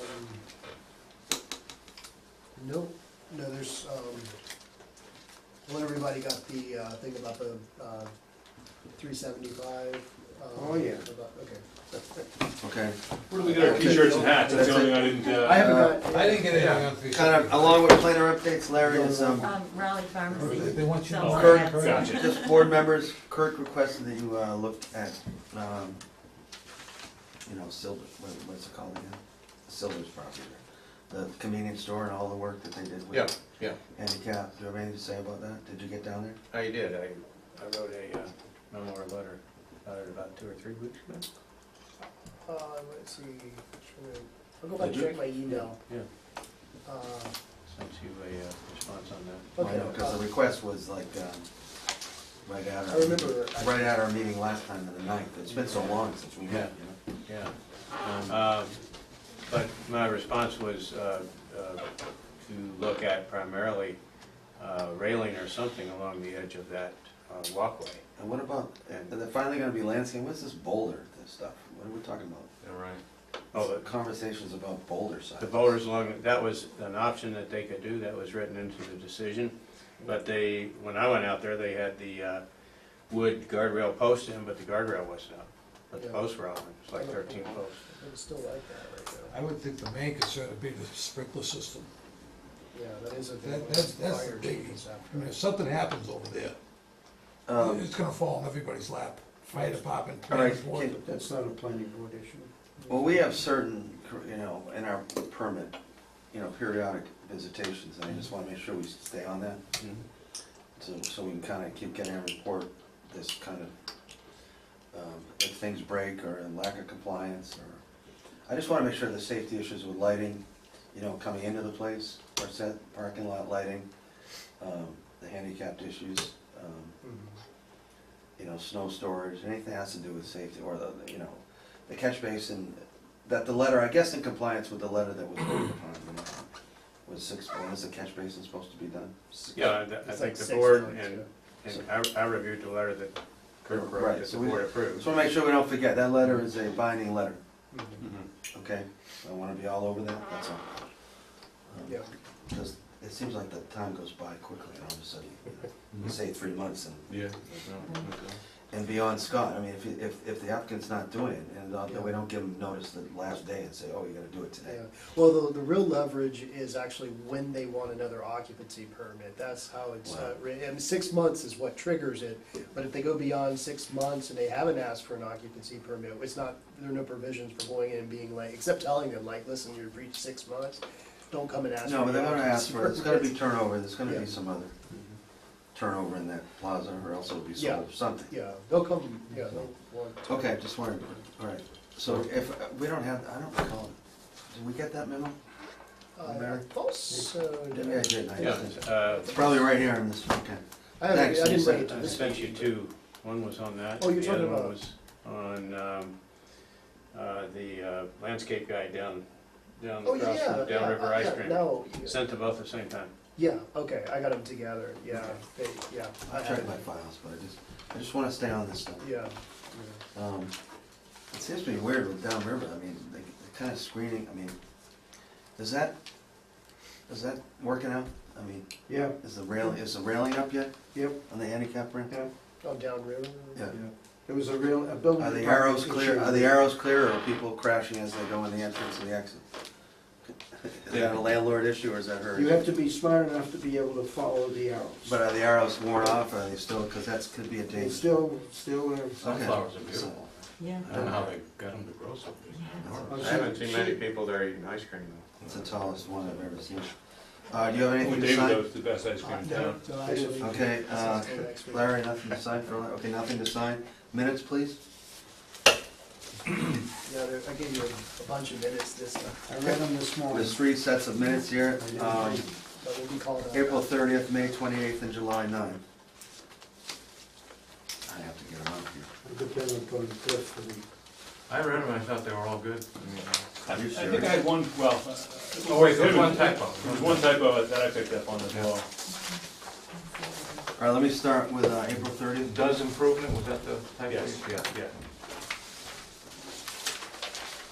Um, Nope, no, there's, um, well, everybody got the, uh, thing about the, uh, three seventy-five. um, Oh, yeah. Okay. Okay. Where do we get our t-shirts and hats? That's the only thing I didn't, I uh, haven't got, I didn't get anything Yeah. on three Kind of, seventy-five. along with planner updates, Larry is, um, Um, Raleigh Pharmacy. They want you to. Someone Kirk, had some- gotcha. just board members, Kirk requested that you, uh, look at, um, you know, Silver, what, what's it called again? Silver's property, the convenience store and all the work that they did with. Yeah, yeah, Handicap, do you have anything to say about that? Did you get down there? I did, I, I wrote a uh, memo or letter, about it about two or three weeks ago. uh, let's see, I'll go back and check my email. Yeah. Uh, Sent you a uh, response on that. Well, I know, okay, Cause the uh, request was like, um, right at our. I remember that. Right at our meeting last time on the ninth, it's been so long since we met, you Yeah, know? Um, Um, But my response was uh, uh, to look at primarily uh, railing or something along the edge of that uh, walkway. And what about, and they're finally gonna be landscaping, what's this boulder, this stuff, what are we talking about? Right. Oh, Oh, the conversations about boulder signs. the voters along, that was an option that they could do, that was written into the decision. But they, when I went out there, they had the uh, wood guardrail post in, but the guardrail wasn't up. But the Yeah. posts were on, it was like thirteen posts. It's still like that right I would think the main concern would be the sprinkler system. now. Yeah, that is a. big That- one. that's- that's the Fire biggie. chief is after I mean, it. if something happens over there, Um, it's gonna fall on everybody's lap, fire department. All right, planning board. can- That's not a planning board issue. well, we have certain, you know, in our permit, you know, periodic visitations, and I just wanna make sure we stay on that. So, so we can kinda keep getting a report, this kind of, um, if things break or in lack of compliance or, I just wanna make sure the safety issues with lighting, you know, coming into the place, or set, parking lot lighting, um, the handicapped issues, um, Mhm. you know, snow storage, anything that has to do with safety, or the, you know, the catch basin, that the letter, I guess in compliance with the letter that was voted upon, you know, was six, when is the catch basin supposed to be done? Six- Yeah, and I I It's think like the six board months, and, and I I reviewed the letter that Kirk Right, wrote, that so the we- board Just approved. wanna make sure we don't forget, that letter is a binding letter, Mhm. okay? I wanna be all over that, that's all. Um, Yeah, Just, it seems like the time goes by quickly, and all of a sudden, you know, say three months and yeah. and beyond Scott, I mean, if, if, if the applicant's not doing it, and uh, we don't give them notice the last day and say, oh, you gotta do it today. yeah. Well, the, the real leverage is actually when they want another occupancy permit. That's how it's, uh, Wow. writ- and six months is what triggers it. But if they go beyond six months and they haven't asked for an occupancy permit, it's not, there are no provisions for going in and being like, except telling them like, listen, you've reached six months, don't come and ask for No, but the they're gonna ask occupancy for, it. it's gonna be permit." turnover, there's gonna Yeah. Mm-hmm. be some other turnover in that plaza, or else it'll be sold or something. Yeah, they'll come, yeah, they'll want to. Okay, just wanted, alright, so if, uh, we don't have, I don't recall, did we get that memo? Uh, also, Yeah, I did, I Yeah, did. uh, It's probably right here in this, okay. I haven't, Thanks, I didn't Lisa. bring it to I this. sent you meeting, two. One was on that. Oh, you're The other talking one about- was on, um, uh, the uh, landscape guy down, down but- Oh, across yeah. from downriver ice yeah, cream. No, yeah. Sent them both at the same time. yeah, okay, I got them together, yeah, they, yeah. I checked my files, but I just, I just wanna stay on this stuff. Yeah, Um, it seems to be weird with downriver, I mean, the, the kind of screening, I mean, is that, is that working out? I mean, Yeah, is the rail, is the railing up yet yep, on the handicap ramp? yeah, oh, downriver? Yeah. yeah. There was a real, a building. Are the department arrows issue. clear, are the arrows clear, or are people crashing as they go in the entrance and the exit? Is that a landlord issue, or is that her? You have issue? to be smart enough to be able to follow the arrows. But are the arrows worn off, or are they still, because that's, could be a It's danger. still, still, uh, Okay. Sunflowers are beautiful. Yeah. I don't know how they got them to grow so big. I I haven't haven't she- seen seen many many she- people there eating ice cream It's the tallest one I've ever seen. Uh, do you have Only Oh, anything to Oh, David sign? knows the best ice cream in town. So actually- Okay, uh, This is till next week. Larry, nothing to sign for, okay, nothing to sign. Minutes, please? Yeah, there- I gave you a- a bunch of minutes this time, I read them this morning. There's three sets of minutes here, um, but we'll be called out. April thirtieth, May twenty-eighth, and July 9th. I have to get them out here. I could tell them going to Cliff for the, I read them, I thought they were all good. I I Are you think I serious? had one, well. uh, Oh, wait, there's it was- one typo. There was one typo that I picked up on as well. All right, let me start with uh, April 30th. Does improvement, was that the type? Yes. Yeah. Yeah.